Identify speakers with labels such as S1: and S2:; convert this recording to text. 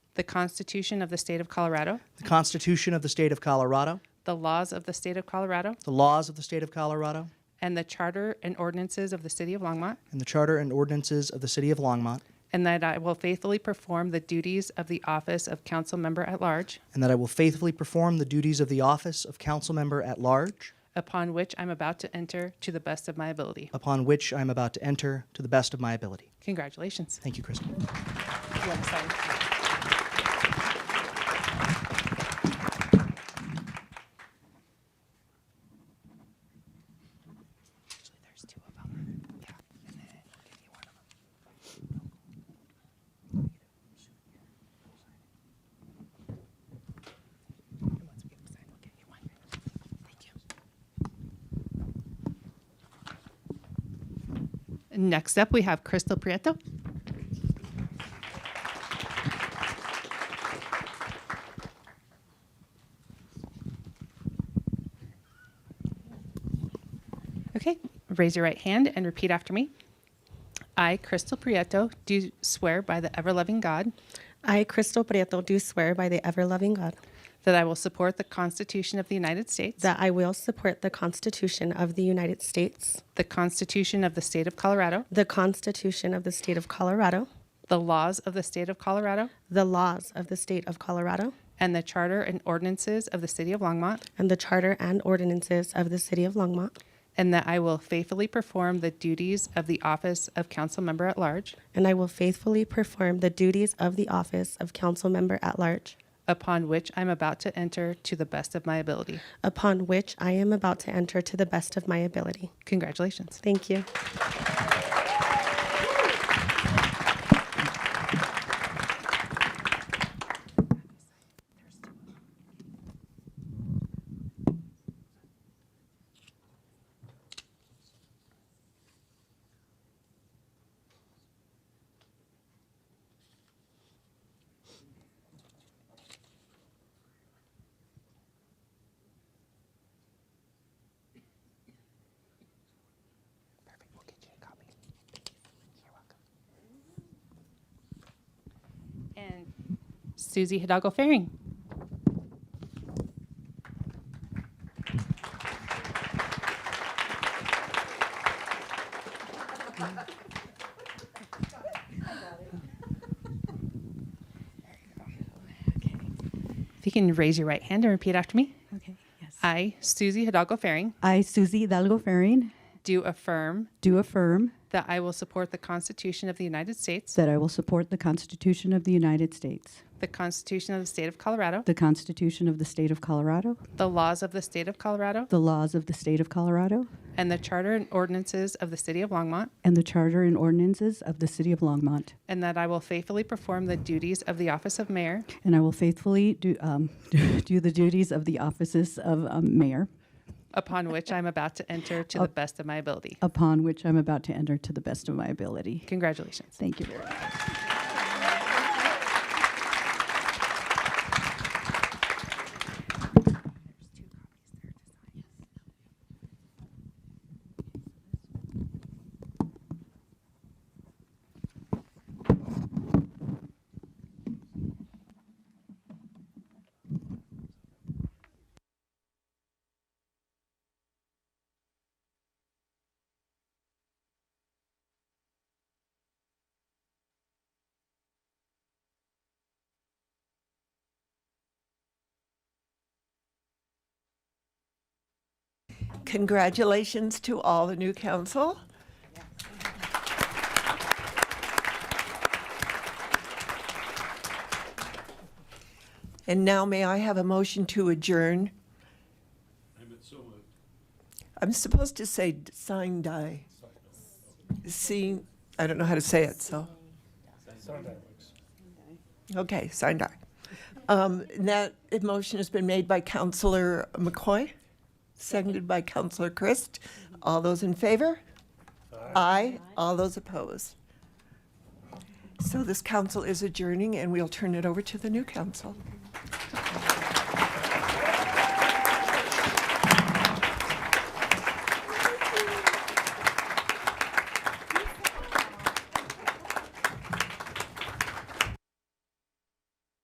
S1: the Constitution of the State of Colorado,
S2: the Constitution of the State of Colorado,
S1: the laws of the State of Colorado,
S2: the laws of the State of Colorado,
S1: and the charter and ordinances of the City of Longmont,
S2: and the Charter and ordinances of the City of Longmont,
S1: and that I will faithfully perform the duties of the office of council member at large,
S2: and that I will faithfully perform the duties of the office of council member at large,
S1: upon which I'm about to enter to the best of my ability.
S2: upon which I am about to enter to the best of my ability.
S1: Congratulations.
S2: Thank you, Crystal.
S1: You want to sign? Next up, we have Crystal Prieto. Okay, raise your right hand and repeat after me. I, Crystal Prieto, do swear by the ever loving God
S3: I, Crystal Prieto, do swear by the ever loving God
S1: that I will support the Constitution of the United States,
S3: that I will support the Constitution of the United States,
S1: the Constitution of the State of Colorado,
S3: the Constitution of the State of Colorado,
S1: the laws of the State of Colorado,
S3: the laws of the State of Colorado,
S1: and the Charter and ordinances of the City of Longmont,
S3: and the Charter and ordinances of the City of Longmont,
S1: and that I will faithfully perform the duties of the office of council member at large,
S3: and I will faithfully perform the duties of the office of council member at large,
S1: upon which I'm about to enter to the best of my ability.
S3: upon which I am about to enter to the best of my ability.
S1: Congratulations.
S3: Thank you.
S1: Perfect. We'll get you a copy. You're welcome. And Susie Hidalgo Faring. If you can raise your right hand and repeat after me.
S4: Okay, yes.
S1: I, Susie Hidalgo Faring,
S4: I, Susie Hidalgo Ferrin,
S1: do affirm
S4: do affirm
S1: that I will support the Constitution of the United States.
S4: that I will support the Constitution of the United States,
S1: The Constitution of the State of Colorado.
S4: the Constitution of the State of Colorado,
S1: The laws of the State of Colorado.
S4: the laws of the State of Colorado,
S1: And the charter and ordinances of the City of Longmont.
S4: and the Charter and ordinances of the City of Longmont.
S1: And that I will faithfully perform the duties of the office of mayor
S4: And I will faithfully do, um, do the duties of the offices of um, mayor,
S1: upon which I am about to enter to the best of my ability.
S4: upon which I'm about to enter to the best of my ability.
S1: Congratulations.
S4: Thank you very much.
S5: Congratulations to all the new council. And now may I have a motion to adjourn? I'm supposed to say d- sign die. See, I don't know how to say it, so. Okay, sign die. Um, and That uh, motion has been made by Counselor McCoy. Seconded by Counselor Christ. All those in favor? Aye. All those opposed? So this council is adjourning, and we'll turn it over to the new council.